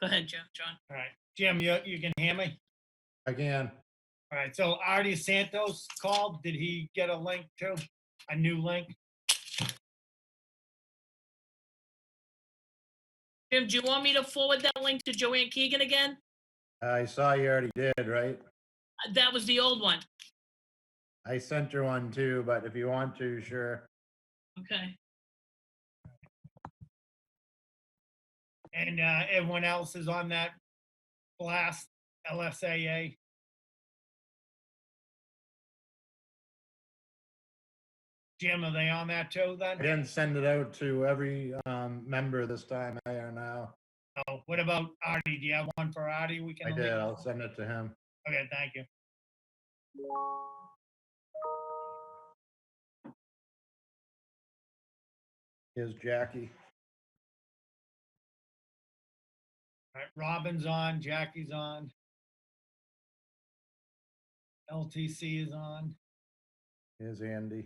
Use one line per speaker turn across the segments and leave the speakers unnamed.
Go ahead, Joe, John.
All right, Jim, you, you can hear me?
Again,
All right, so Artie Santos called. Did he get a link too? A new link?
Jim, do you want me to forward that link to Joanne Keegan again?
I saw you already did, right?
Uh, That was the old one.
I sent her one too, but if you want to, sure.
Okay.
And uh, everyone else is on that blast LSAA? Jim, are they on that too
I
then?
didn't send it out to every um, member this time, I are now.
Oh, What about Artie? Do you have one for Artie? We
I
can.
did,
link?
I'll send it to him.
Okay, thank you.
Here's Jackie.
All right, Robin's on, Jackie's on. LTC is on.
Here's Andy.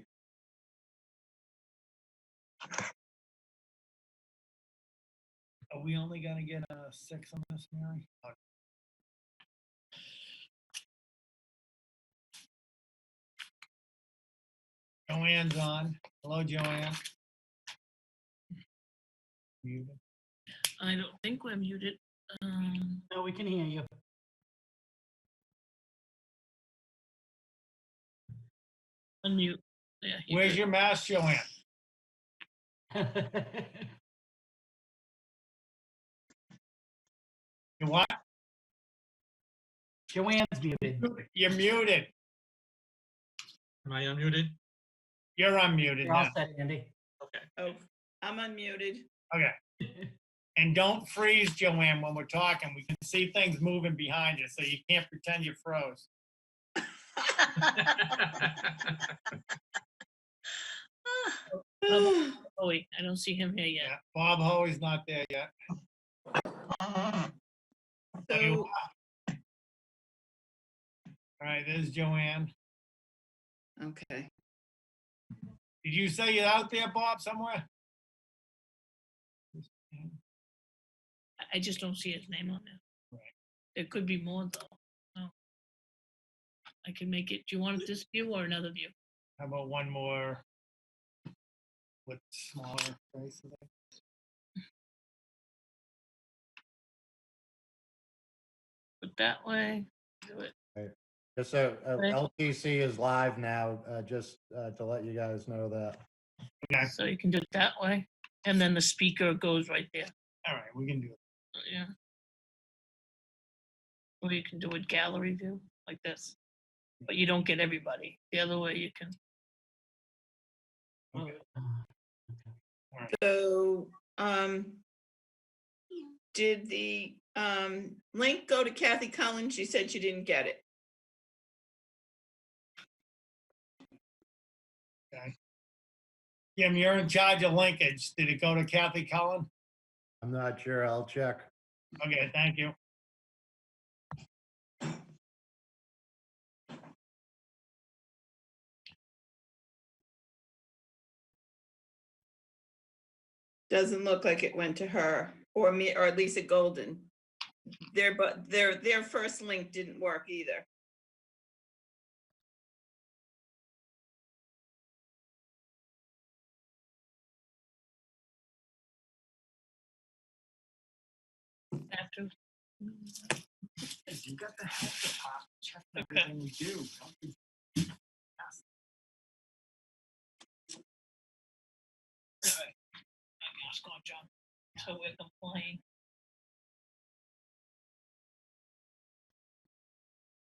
Are we only gonna get a six on this, Mary? Oh, Joanne's on. Hello, Joanne. Muted.
I don't think we're muted. Um,
No, we can hear you.
unmute. Yeah. you
Where's
good.
your mask, Joanne? You what?
Joanne's muted.
You're muted.
Am I unmuted?
You're unmuted
You're all
now.
set, Andy.
Okay.
Oh, I'm unmuted.
And don't freeze, Joanne, when we're talking. We can see things moving behind you, so you can't pretend you froze.
Oh, wait, I don't see him here yet.
Yeah, Bob Hoey's not there yet. There you
So,
All right, there's Joanne.
okay.
Did you say you're out there, Bob, somewhere?
I- I just don't see his name on there.
Right.
There could be more though. No. I can make it. Do you want this view or another view?
How about one more? With smaller faces? I
Put that way. Do it.
Just so, uh,
Right.
LTC is live now, uh, just uh, to let you guys know that.
Okay.
So you can do it that way. And then the speaker goes right there.
All right, we can do it.
Yeah. Or you can do a gallery view like this, but you don't get everybody. The other way you can.
uh,
Okay.
Oh, So, um, did the, um, link go to Kathy Collins? She said she didn't get it.
Jim, you're in charge of linkage. Did it go to Kathy Cullen?
I'm not sure, I'll check.
Okay, thank you.
Doesn't look like it went to her or me or Lisa Golden. Their, but their, their first link didn't work either.
After.
You got the head to pop, check
Okay.
everything we do. Don't be-
Mask on, John. So we're complying.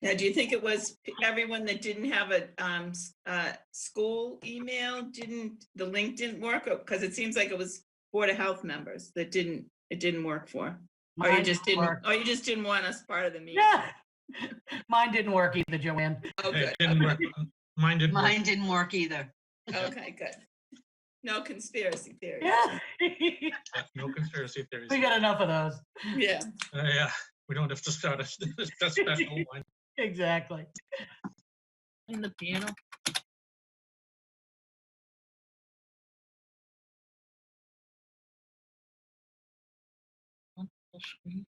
Now, do you think it was p- everyone that didn't have a, um, s- uh, school email, didn't, the link didn't work? Or- Cause it seems like it was Board of Health members that didn't, it didn't work for. Or Oh, you
Mine
just didn't,
work.
or you just didn't want us part of the meeting?
Yeah. Mine didn't work either, Joanne.
Oh,
It
good.
didn't work. Mine didn't work.
Mine didn't work either.
Okay, good. No conspiracy theories.
Yeah. We
No conspiracy theories.
got enough of those.
Yeah.
Uh, Yeah, we don't have to start a a special one.
Exactly.
In the piano. On full screen.